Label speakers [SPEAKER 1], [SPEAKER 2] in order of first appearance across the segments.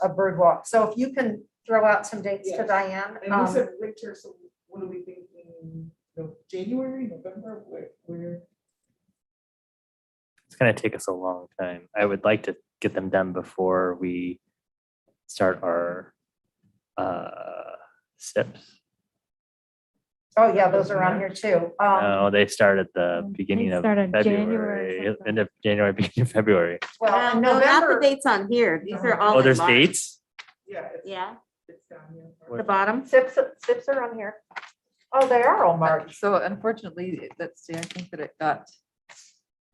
[SPEAKER 1] a bird walk. So if you can throw out some dates to
[SPEAKER 2] Yes.
[SPEAKER 1] Diane.
[SPEAKER 2] And
[SPEAKER 1] um,
[SPEAKER 2] we said winter, so what are we thinking, No- January, November, where, where?
[SPEAKER 3] It's gonna take us a long time. I would like to get them done before we start our uh SIPs.
[SPEAKER 1] Oh, yeah, those
[SPEAKER 2] Mhm.
[SPEAKER 1] are on here too. Um,
[SPEAKER 3] No, they start at the
[SPEAKER 4] They
[SPEAKER 3] beginning of
[SPEAKER 4] start in January
[SPEAKER 3] February,
[SPEAKER 4] sometime.
[SPEAKER 3] end of January, beginning of February.
[SPEAKER 4] Uh,
[SPEAKER 1] well,
[SPEAKER 5] No, not the
[SPEAKER 1] November,
[SPEAKER 5] dates on here. These are all.
[SPEAKER 3] Oh,
[SPEAKER 5] in
[SPEAKER 3] there's
[SPEAKER 5] March.
[SPEAKER 3] dates?
[SPEAKER 2] Yeah. it's-
[SPEAKER 5] Yeah,
[SPEAKER 2] It's down here.
[SPEAKER 5] the bottom.
[SPEAKER 1] sips, sips are on here. Oh, they are all March.
[SPEAKER 6] So unfortunately, it- let's see, I think that it got,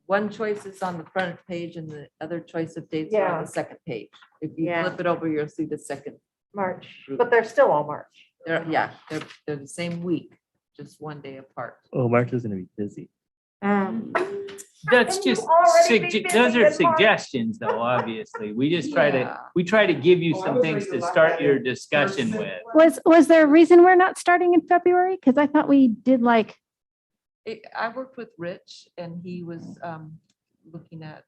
[SPEAKER 6] one choice is on the front page and the other choice of dates are
[SPEAKER 1] Yeah.
[SPEAKER 6] on the second page. If you
[SPEAKER 5] Yeah.
[SPEAKER 6] flip it over, you'll see the second,
[SPEAKER 1] March, but they're still all March.
[SPEAKER 6] they're, yeah, they're, they're the same week, just one day apart.
[SPEAKER 3] Oh, March is gonna be busy.
[SPEAKER 5] Um,
[SPEAKER 7] That's
[SPEAKER 1] Can you
[SPEAKER 7] just,
[SPEAKER 1] already
[SPEAKER 7] sugge-
[SPEAKER 1] be busy
[SPEAKER 7] those are
[SPEAKER 1] this morning?
[SPEAKER 7] suggestions though, obviously. We just try to,
[SPEAKER 6] Yeah.
[SPEAKER 7] we try to give you
[SPEAKER 2] Oh, I
[SPEAKER 7] some
[SPEAKER 2] was
[SPEAKER 7] things
[SPEAKER 2] reading
[SPEAKER 7] to
[SPEAKER 2] a lot
[SPEAKER 7] start
[SPEAKER 2] better.
[SPEAKER 7] your discussion
[SPEAKER 2] Person-
[SPEAKER 7] with.
[SPEAKER 4] Was, was there a reason we're not starting in February? Because I thought we did like,
[SPEAKER 6] It- I worked with Rich and he was um, looking at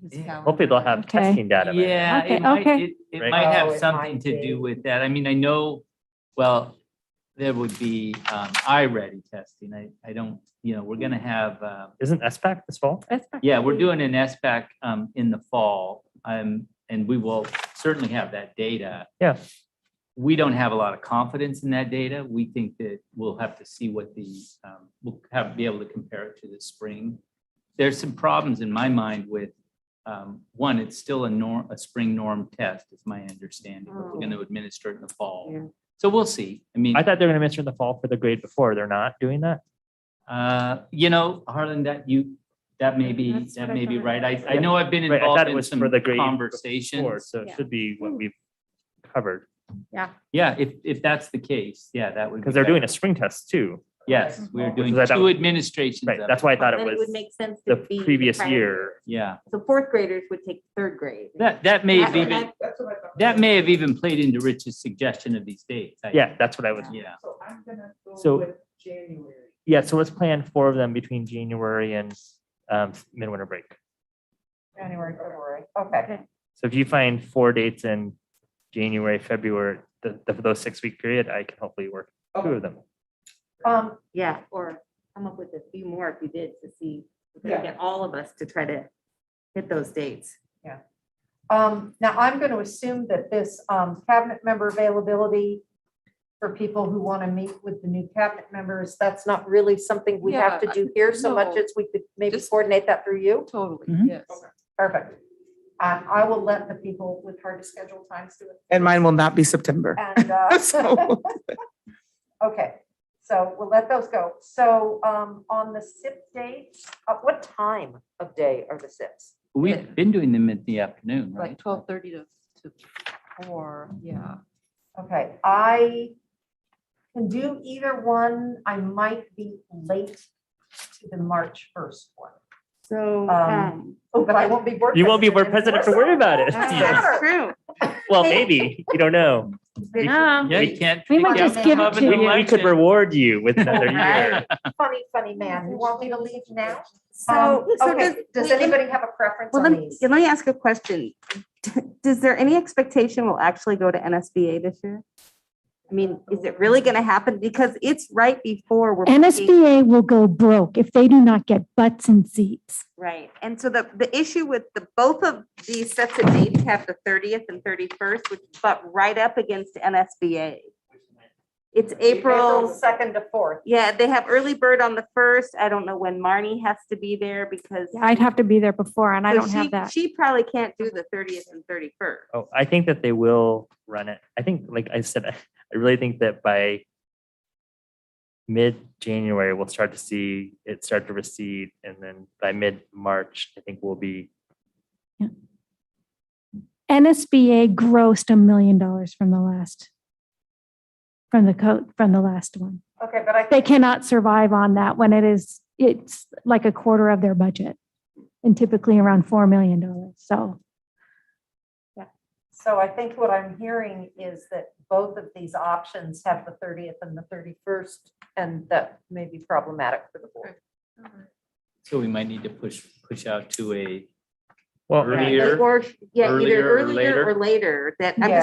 [SPEAKER 6] his
[SPEAKER 7] Yeah.
[SPEAKER 6] calendar.
[SPEAKER 3] Hopefully they'll have
[SPEAKER 4] Okay.
[SPEAKER 3] testing data. by then.
[SPEAKER 7] Yeah,
[SPEAKER 4] Okay,
[SPEAKER 7] it might,
[SPEAKER 4] okay.
[SPEAKER 7] it, it
[SPEAKER 3] Right.
[SPEAKER 7] might
[SPEAKER 1] Oh,
[SPEAKER 7] have
[SPEAKER 1] it
[SPEAKER 7] something
[SPEAKER 1] might
[SPEAKER 7] to
[SPEAKER 1] be.
[SPEAKER 7] do with that. I mean, I know, well, there would be, um, eye ready testing. I, I don't, you know, we're gonna have, uh,
[SPEAKER 3] Isn't SPAC this fall?
[SPEAKER 4] that's fine.
[SPEAKER 7] yeah, we're doing an SBAC, um, in the fall. Um, and we will certainly have that data.
[SPEAKER 3] Yeah.
[SPEAKER 7] We don't have a lot of confidence in that data. We think that we'll have to see what the, um, we'll have, be able to compare it to the spring. There's some problems in my mind with, um, one, it's still a norm, a spring norm test, is my understanding. but We're going to administer it in the
[SPEAKER 5] Yeah.
[SPEAKER 7] fall. So we'll see. I mean.
[SPEAKER 3] I thought they were gonna mention the fall for the grade before. They're not doing that?
[SPEAKER 7] Uh, you know, Harlan, that you, that may be,
[SPEAKER 4] That's
[SPEAKER 7] that
[SPEAKER 4] what I
[SPEAKER 7] may be
[SPEAKER 4] thought.
[SPEAKER 7] right. I, I
[SPEAKER 3] Yeah.
[SPEAKER 7] know I've been
[SPEAKER 3] Right, I thought
[SPEAKER 7] involved
[SPEAKER 3] it
[SPEAKER 7] in
[SPEAKER 3] was
[SPEAKER 7] some
[SPEAKER 3] for the grade before, Or,
[SPEAKER 7] conversations.
[SPEAKER 3] so it
[SPEAKER 5] Yeah.
[SPEAKER 3] should be what we've covered,
[SPEAKER 7] Yeah, if, if that's the case, yeah, that would.
[SPEAKER 3] because
[SPEAKER 7] be
[SPEAKER 3] they're doing a
[SPEAKER 7] better.
[SPEAKER 3] spring test too.
[SPEAKER 7] Yes, we're doing
[SPEAKER 3] is I thought-
[SPEAKER 7] two administrations.
[SPEAKER 3] Right,
[SPEAKER 7] of
[SPEAKER 3] that's
[SPEAKER 7] it.
[SPEAKER 3] why I thought
[SPEAKER 5] then
[SPEAKER 3] it
[SPEAKER 5] it
[SPEAKER 3] was
[SPEAKER 5] would make sense. to
[SPEAKER 3] the
[SPEAKER 5] be
[SPEAKER 3] previous
[SPEAKER 5] prior-
[SPEAKER 3] year.
[SPEAKER 7] Yeah,
[SPEAKER 5] So fourth graders would take third grade.
[SPEAKER 7] that, that may have
[SPEAKER 5] That's what
[SPEAKER 7] even,
[SPEAKER 5] I-
[SPEAKER 2] That's what I thought.
[SPEAKER 7] that may have even played into Rich's suggestion of these dates. I-
[SPEAKER 3] Yeah, that's what I was,
[SPEAKER 7] Yeah,
[SPEAKER 2] So I'm gonna
[SPEAKER 3] So-
[SPEAKER 2] go with January.
[SPEAKER 3] yeah, so let's plan four of them between January and um midwinter break.
[SPEAKER 1] January, February. Okay.
[SPEAKER 3] So if you find four dates in January, February, the, the, for those six week period, I can hopefully work two
[SPEAKER 2] Oh.
[SPEAKER 3] of them.
[SPEAKER 1] Um,
[SPEAKER 5] Yeah, or come up with a few more if you did to see, if we
[SPEAKER 2] Yeah.
[SPEAKER 5] get all of us to try to hit those dates.
[SPEAKER 1] um, now I'm going to assume that this, um, cabinet member availability for people who want to meet with the new cabinet members, that's not really something we have to
[SPEAKER 6] Yeah,
[SPEAKER 1] do here so much
[SPEAKER 6] no.
[SPEAKER 1] as we could maybe
[SPEAKER 6] Just-
[SPEAKER 1] coordinate that through you.
[SPEAKER 6] Totally,
[SPEAKER 7] Mhm.
[SPEAKER 6] yes.
[SPEAKER 1] Perfect. Um, I will let the people with hard to schedule times do it.
[SPEAKER 2] And mine will not be September.
[SPEAKER 1] And, uh, okay, so we'll let those go. So, um, on the SIP dates, at what time of day are the SIPs?
[SPEAKER 6] Yeah.
[SPEAKER 7] we've been doing them in the afternoon, right?
[SPEAKER 6] Like twelve thirty to, to four, yeah.
[SPEAKER 1] Okay, I can do either one. I might be late to the March first one.
[SPEAKER 5] So.
[SPEAKER 1] Um, Oh, but I won't be board.
[SPEAKER 3] You won't be board president
[SPEAKER 1] president
[SPEAKER 3] to worry about it.
[SPEAKER 1] Yeah.
[SPEAKER 5] That's true.
[SPEAKER 3] Well, maybe, you don't know. We-
[SPEAKER 4] Yeah.
[SPEAKER 7] Yeah,
[SPEAKER 3] We-
[SPEAKER 7] you can't.
[SPEAKER 4] we
[SPEAKER 7] pick
[SPEAKER 4] might
[SPEAKER 7] out
[SPEAKER 4] just give it
[SPEAKER 7] of an
[SPEAKER 4] to
[SPEAKER 3] We we could
[SPEAKER 7] election.
[SPEAKER 3] reward you with another year.
[SPEAKER 1] Funny, funny man. You want me to leave now?
[SPEAKER 5] So,
[SPEAKER 1] Um,
[SPEAKER 5] so does.
[SPEAKER 1] Okay, does anybody have a preference
[SPEAKER 5] Well,
[SPEAKER 1] on
[SPEAKER 5] let me,
[SPEAKER 1] these?
[SPEAKER 5] let me ask a question. Does there any expectation we'll actually go to NSBA this year? I mean, is it really going to happen? Because it's right before we're. picking-
[SPEAKER 4] NSBA will go broke if they do not get butts and seats.
[SPEAKER 5] Right, and so the, the issue with the, both of these sets of dates have the thirtieth and thirty-first, which butt right up against NSBA. It's April,
[SPEAKER 1] Second to fourth.
[SPEAKER 5] yeah, they have early bird on the first, I don't know when Marnie has to be there because.
[SPEAKER 4] Yeah, I'd have to be there before and I
[SPEAKER 5] so
[SPEAKER 4] don't have
[SPEAKER 5] she-
[SPEAKER 4] that.
[SPEAKER 5] She probably can't do the thirtieth and thirty-first.
[SPEAKER 3] Oh, I think that they will run it. I think, like I said, I really think that by mid-January, we'll start to see it start to recede, and then by mid-March, I think we'll be,
[SPEAKER 4] NSBA grossed a million dollars from the last, from the coat, from the last one.
[SPEAKER 1] Okay, but I.
[SPEAKER 4] They
[SPEAKER 1] think-
[SPEAKER 4] cannot survive on that when it is, it's like a quarter of their budget and typically around $4 million. So
[SPEAKER 1] So I think what I'm hearing is that both of these options have the thirtieth and the thirty-first, and that may be problematic for the board.
[SPEAKER 7] So we might need to push, push out to a
[SPEAKER 3] Well,
[SPEAKER 5] Or, yeah, either
[SPEAKER 3] earlier or
[SPEAKER 5] earlier
[SPEAKER 3] later?
[SPEAKER 5] or later, that, I'm
[SPEAKER 1] Yeah.
[SPEAKER 5] just